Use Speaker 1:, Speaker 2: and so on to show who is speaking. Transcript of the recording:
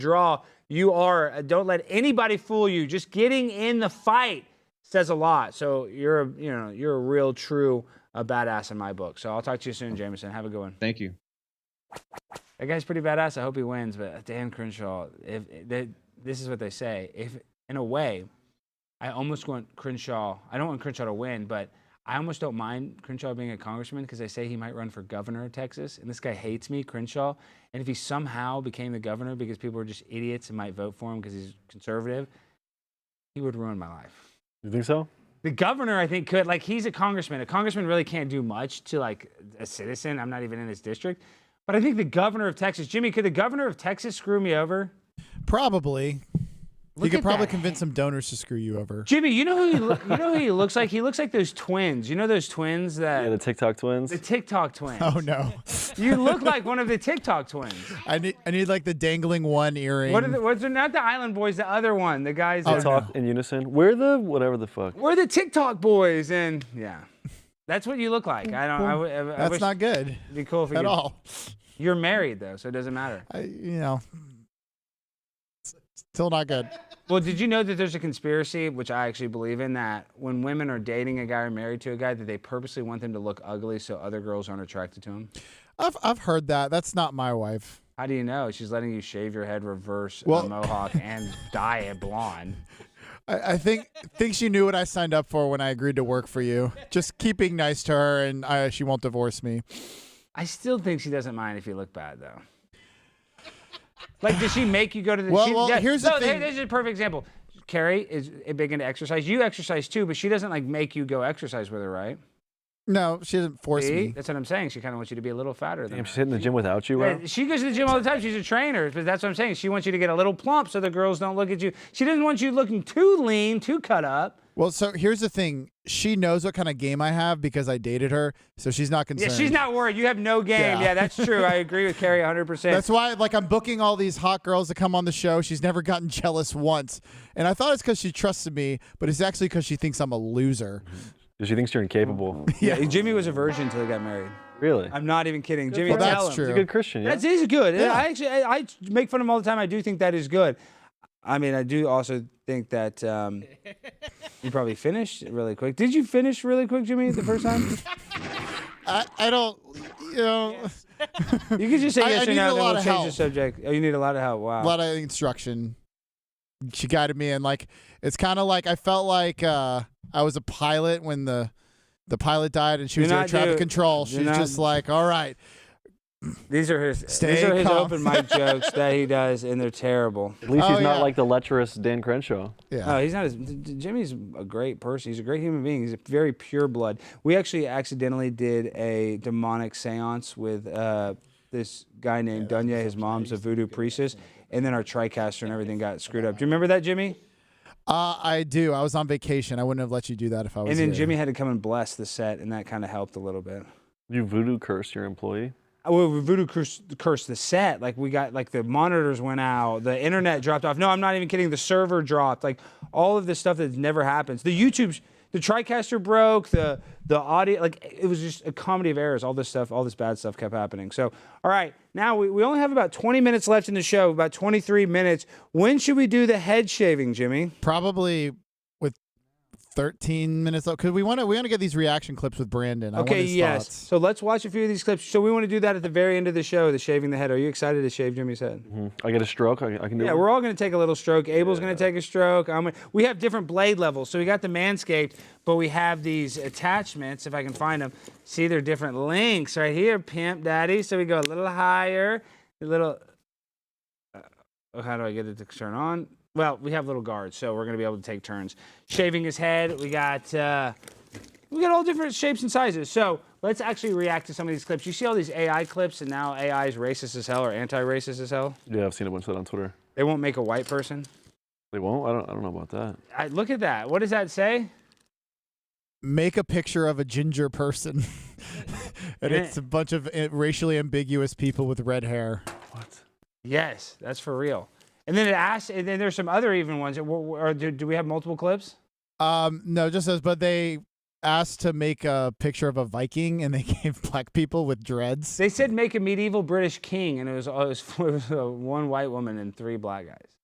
Speaker 1: draw. You are. uh, Don't let anybody fool you. Just getting in the fight says a lot. So you're a, you know you're a real true uh, badass in my book. So I'll talk to you soon, Jameson. Have a good one.
Speaker 2: Thank you.
Speaker 1: That guy's pretty badass. I hope he wins. But uh, Dan Crenshaw, if eh, they, this is what they say, if in a way, I almost want Crenshaw. I don't want Crenshaw to win, but I almost don't mind Crenshaw being a congressman because they say he might run for governor of Texas, and this guy hates me, Crenshaw. And if he somehow became the governor because people are just idiots and might vote for him because he's conservative, he would ruin my life.
Speaker 3: You think so?
Speaker 1: The governor, I think, could like he's a congressman. A congressman really can't do much to like a citizen. I'm not even in his district, but I think the governor of Texas, Jimmy, could the governor of Texas screw me over?
Speaker 4: Probably.
Speaker 1: Look
Speaker 4: you could
Speaker 1: at
Speaker 4: probably
Speaker 1: that
Speaker 4: convince some donors to screw you over.
Speaker 1: Jimmy, you know who he lo- you know who he looks like? He looks like those twins. You know those twins that
Speaker 3: Yeah, the TikTok twins.
Speaker 1: the TikTok twins.
Speaker 4: Oh no.
Speaker 1: You look like one of the TikTok twins.
Speaker 4: I need I need like the dangling one earring.
Speaker 1: What are the, what's not the Island Boys? The other one, the guys.
Speaker 4: Oh,
Speaker 1: That,
Speaker 3: Talk in unison. We're the whatever the fuck.
Speaker 1: We're the TikTok boys, and yeah, that's what you look like. I don't. I, w- I,
Speaker 4: That's
Speaker 1: wish
Speaker 4: not good
Speaker 1: it'd be cool if you
Speaker 4: at
Speaker 1: could-
Speaker 4: all.
Speaker 1: You're married though, so it doesn't matter.
Speaker 4: I, you know. s- Still not good.
Speaker 1: Well, did you know that there's a conspiracy, which I actually believe in, that when women are dating a guy or married to a guy, that they purposely want them to look ugly so other girls aren't attracted to him?
Speaker 4: I've I've heard that. That's not my wife.
Speaker 1: How do you know? She's letting you shave your head, reverse
Speaker 4: Well-
Speaker 1: a mohawk, and dye it blonde.
Speaker 4: I, I think think she knew what I signed up for when I agreed to work for you. Just keep being nice to her, and I, she won't divorce me.
Speaker 1: I still think she doesn't mind if you look bad, though. Like, does she make you go to the?
Speaker 4: Well,
Speaker 1: she,
Speaker 4: well, here's the
Speaker 1: no,
Speaker 4: thing.
Speaker 1: This is a perfect example. Carrie is big into exercise. You exercise too, but she doesn't like make you go exercise with her, right?
Speaker 4: No, she doesn't force
Speaker 1: See?
Speaker 4: me.
Speaker 1: That's what I'm saying. She kind of wants you to be a little fatter than.
Speaker 3: Damn,
Speaker 1: her.
Speaker 3: she's hitting the gym without you,
Speaker 1: Yeah,
Speaker 3: bro.
Speaker 1: She goes to the gym all the time. She's a trainer, but that's what I'm saying. She wants you to get a little plump so the girls don't look at you. She doesn't want you looking too lean, too cut up.
Speaker 4: Well, so here's the thing. She knows what kind of game I have because I dated her, so she's not
Speaker 1: Yeah,
Speaker 4: concerned.
Speaker 1: she's not worried. You have no game.
Speaker 4: Yeah.
Speaker 1: Yeah, that's true. I agree with Carrie 100%.
Speaker 4: That's why, like, I'm booking all these hot girls to come on the show. She's never gotten jealous once, and I thought it's because she trusted me, but it's actually because she thinks I'm a loser.
Speaker 3: She thinks you're incapable.
Speaker 1: yeah. Jimmy was a virgin until he got married.
Speaker 3: really?
Speaker 1: I'm not even kidding. Jimmy,
Speaker 4: Well,
Speaker 1: tell
Speaker 4: that's
Speaker 1: him.
Speaker 4: true.
Speaker 3: He's a good Christian. Yeah?
Speaker 1: That is good.
Speaker 4: Yeah.
Speaker 1: I actually, I, I make fun of him all the time. I do think that is good. I mean, I do also think that um, you probably finished really quick. Did you finish really quick, Jimmy, the first time?
Speaker 4: I, I don't, you know,
Speaker 1: You could just say
Speaker 4: I- I
Speaker 1: yes or
Speaker 4: needed
Speaker 1: no,
Speaker 4: a
Speaker 1: then
Speaker 4: lot
Speaker 1: we'll
Speaker 4: of
Speaker 1: change the
Speaker 4: help.
Speaker 1: subject. Oh, you need a lot of help. Wow.
Speaker 4: a lot of instruction. She guided me, and like, it's kind of like I felt like uh, I was a pilot when the the pilot died, and she
Speaker 1: You're
Speaker 4: was air
Speaker 1: not
Speaker 4: traffic
Speaker 1: do-
Speaker 4: control.
Speaker 1: you're
Speaker 4: She's
Speaker 1: not-
Speaker 4: just like, all right,
Speaker 1: These are his
Speaker 4: Stay
Speaker 1: these are his
Speaker 4: calm.
Speaker 1: open mic jokes that he does, and they're terrible.
Speaker 3: At least
Speaker 4: Oh,
Speaker 3: he's not
Speaker 4: yeah.
Speaker 3: like the lecherous Dan Crenshaw.
Speaker 4: yeah.
Speaker 1: No, he's not. As, D- D- Jimmy's a great person. He's a great human being. He's a very pure blood. We actually accidentally did a demonic seance with uh, this guy named Dunya. His mom's a voodoo priestess, and then our tricaster and everything got screwed up. Do you remember that, Jimmy?
Speaker 4: Uh, I do. I was on vacation. I wouldn't have let you do that if I was.
Speaker 1: And then
Speaker 4: here.
Speaker 1: Jimmy had to come and bless the set, and that kind of helped a little bit.
Speaker 3: You voodoo curse your employee.
Speaker 1: Well, we voodoo curse, cursed the set. Like we got like the monitors went out, the internet dropped off. No, I'm not even kidding. The server dropped. Like all of this stuff that never happens. The YouTube's the TriCaster broke. The the audio like it was just a comedy of errors. All this stuff, all this bad stuff kept happening. So all right, now we, we only have about 20 minutes left in the show. About 23 minutes. When should we do the head shaving, Jimmy?
Speaker 4: probably with 13 minutes left because we want to we want to get these reaction clips with Brandon. I want
Speaker 1: Okay,
Speaker 4: his
Speaker 1: yes.
Speaker 4: thoughts.
Speaker 1: So let's watch a few of these clips. So we want to do that at the very end of the show. The shaving the head. Are you excited to shave Jimmy's head?
Speaker 3: Mhm. I get a stroke. I, I can do
Speaker 1: Yeah,
Speaker 3: it.
Speaker 1: we're all going to take a little stroke. Abel's going to take a stroke. I'm gonna, we have different blade levels. So we got the Manscaped, but we have these attachments, if I can find them. See, they're different links right here, Pimp Daddy. So we go a little higher, a little. Uh, how do I get it to turn on? Well, we have little guards, so we're going to be able to take turns. Shaving his head, we got. Uh, we got all different shapes and sizes. So let's actually react to some of these clips. You see all these AI clips, and now AI is racist as hell or anti-racist as hell.
Speaker 3: yeah, I've seen a bunch of that on Twitter.
Speaker 1: They won't make a white person.
Speaker 3: They won't. I don't. I don't know about that.
Speaker 1: I, look at that. What does that say?
Speaker 4: Make a picture of a ginger person, and it's
Speaker 1: Eh.
Speaker 4: a bunch of uh, racially ambiguous people with red hair.
Speaker 3: What?
Speaker 1: Yes, that's for real. And then it asks, and then there's some other even ones. Or, or do, do we have multiple clips?
Speaker 4: Um, no, just as but they asked to make a picture of a Viking, and they gave black people with dreads.
Speaker 1: They said make a medieval British king, and it was, it was, it was uh, one white woman and three black guys.